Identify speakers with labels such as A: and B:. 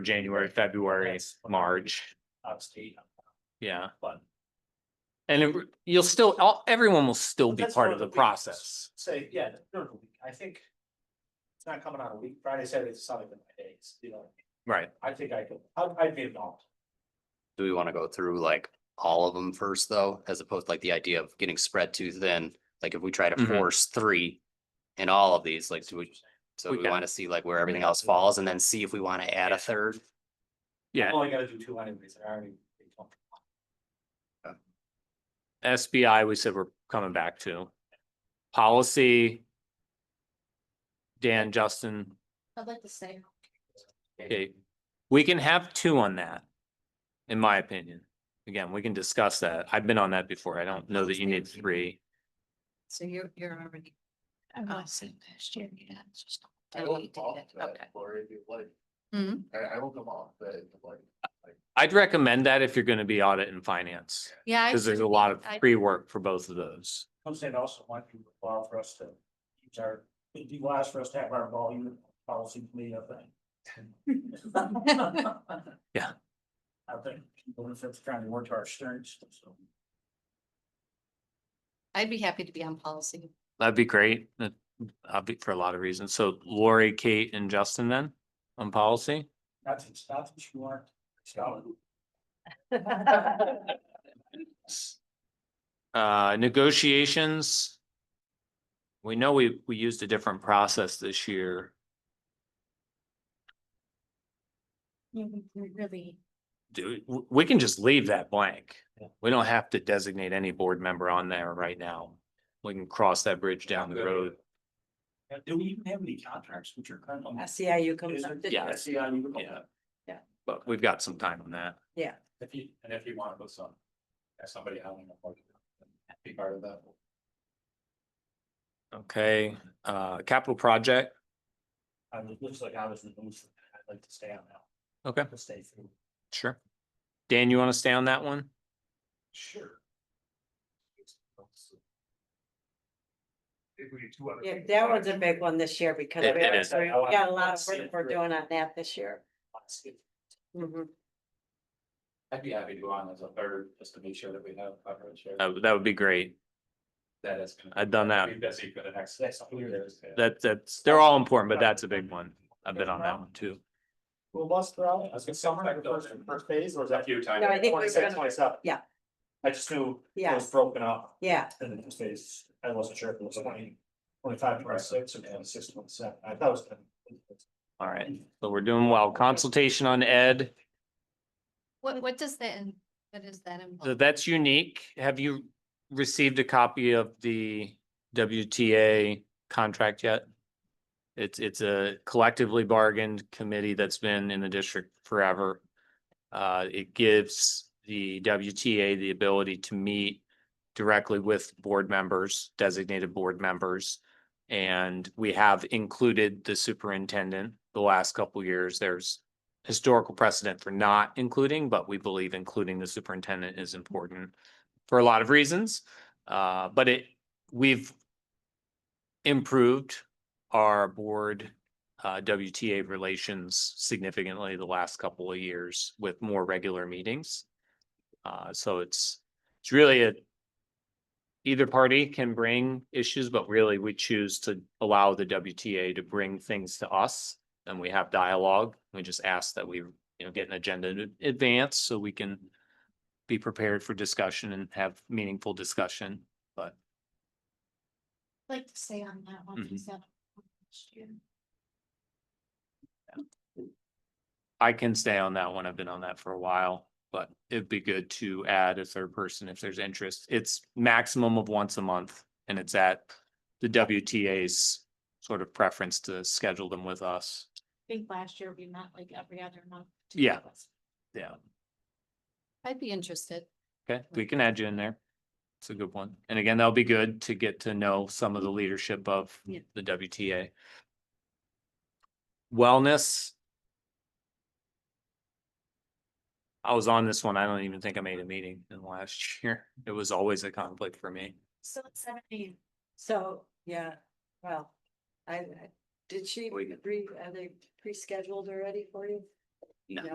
A: January, February,
B: That's-
A: March,
B: Obviously,
A: yeah.
B: but
A: And it- you'll still, all, everyone will still
B: But
A: be
B: that's
A: part
B: one
A: of
B: of
A: the
B: the weaknesses.
A: process.
B: say, yeah, during the week, I think. It's not coming out a week, Friday, Saturday, Sunday, but my days, you know,
A: Right.
B: I think I could, I'd, I'd be involved.
C: Do we want to go through like all of them first though, as opposed to like the idea of getting spread too thin? Like if we try to
A: Mhm.
C: force three in all of these, like do we, so
A: We
C: we
A: can.
C: want to see like where everything else falls and then see if we want to add a third?
B: I'm
A: Yeah,
B: only gotta do two anyways, and I already. pretty comfortable.
A: SBI, we said we're coming back to. Policy. Dan, Justin,
D: I'd like to say,
A: Okay, we can have two on that. In my opinion, again, we can discuss that. I've been on that before. I don't know that you need three.
D: so you're, you're already.
E: I
D: Oh.
E: was in last year, yeah, it's just.
D: I
E: Oh,
D: will
E: you did
D: follow
E: it,
D: that.
E: okay.
F: Lori, if you like.
D: Mhm.
F: I, I will come off, but like,
A: I'd recommend that if you're gonna be audit and finance,
D: Yeah. I
A: because there's a
D: agree.
A: lot of
D: I-
A: pre-work for both of those.
B: Comes in also want you to allow for us to use our, it'd be wise for us to have our volume policy committee up thing.
A: Yeah.
B: I think people in Fifth County work to our strengths, so.
D: I'd be happy to be on policy.
A: That'd be great. That, I'll be for a lot of reasons. So Lori, Kate and Justin then on policy?
B: Not to, not that you aren't scholar.
A: Uh, negotiations. We know we, we used a different process this year.
E: Yeah, we we really,
A: do, w- we can just leave that blank.
B: Yeah.
A: We don't have to designate any board member on there right now. We can cross that bridge down the road.
B: Do we even have any contracts which are currently?
E: SEIU comes
B: Is
E: up.
B: it- E
E: did-
A: Yeah.
B: I see how you would call
A: Yeah.
B: that.
A: But we've got some time on that.
B: If you, and if you want to put some, have somebody out on the board, be part of that.
A: Okay, uh, capital project.
B: I mean, it looks like I was in the booth, I'd like to stay on that.
A: Okay,
B: to stay through.
A: sure. Dan, you want to stay on that one?
F: sure. If we do two other
G: Yeah,
F: things, uh,
G: that
F: why
G: was a
F: don't
G: big
F: you-
G: one this year because
A: It-
G: we
A: it is.
G: got a lot of work we're doing on that this year.
D: Mm-hmm.
G: Mhm.
B: I'd be happy to go on as a third, just to make sure that we have coverage here.
A: That, would- that would be great.
B: That is. gonna
A: I've Oh. done that.
B: Be busy for the next. That's clear.
A: That, that's, they're all important, but that's a big one. I've been on that one too.
B: Well, bus throw, I was gonna summer, like the first, first phase, or is that few times?
G: No, I think we're gonna-
B: Twenty-seven.
G: yeah.
B: I just knew it
G: Yeah,
B: was broken up
G: yeah,
B: in the first phase, I wasn't sure if it was twenty, twenty-five, twenty-six, or twenty-six, twenty-seven, I thought it was. 10.
A: All right, so we're doing well. Consultation on ed,
D: What, what does that, in- what does that involve?
A: so that's unique. Have you received a copy of the WTA contract yet? It's, it's a collectively bargained committee that's been in the district forever. Uh, it gives the WTA the ability to meet directly with board members, designated board members. And we have included the superintendent the last couple years. There's historical precedent for not including, but we believe including the superintendent is important for a lot of reasons. Uh, but it, we've improved our board uh, WTA relations significantly the last couple of years with more regular meetings. Uh, so it's, it's really a either party can bring issues, but really we choose to allow the WTA to bring things to us and we have dialogue. We just ask that we, you know, get an agenda in advance so we can be prepared for discussion and have meaningful discussion.
E: I'd Like to stay on that one.
A: Mhm.
E: because that was last year.
A: I can stay on that one. I've been on that for a while, but it'd be good to add a third person if there's interest. It's maximum of once a month and it's at the WTA's sort of preference to schedule them with us.
E: I think last year we met like every other month. two
A: Yeah.
E: of us.
A: Yeah.
D: I'd be interested.
A: Okay, we can add you in there. It's a good one. And again, that'll be good to get to know some of the leadership of
E: Yeah.
A: the WTA. Wellness. I was on this one. I don't even think I made a meeting in the last year. It was always a conflict for me.
E: So it's seventeen.
G: so, yeah, well, I, I- did she
C: We can-
G: re, are they pre-scheduled already for you?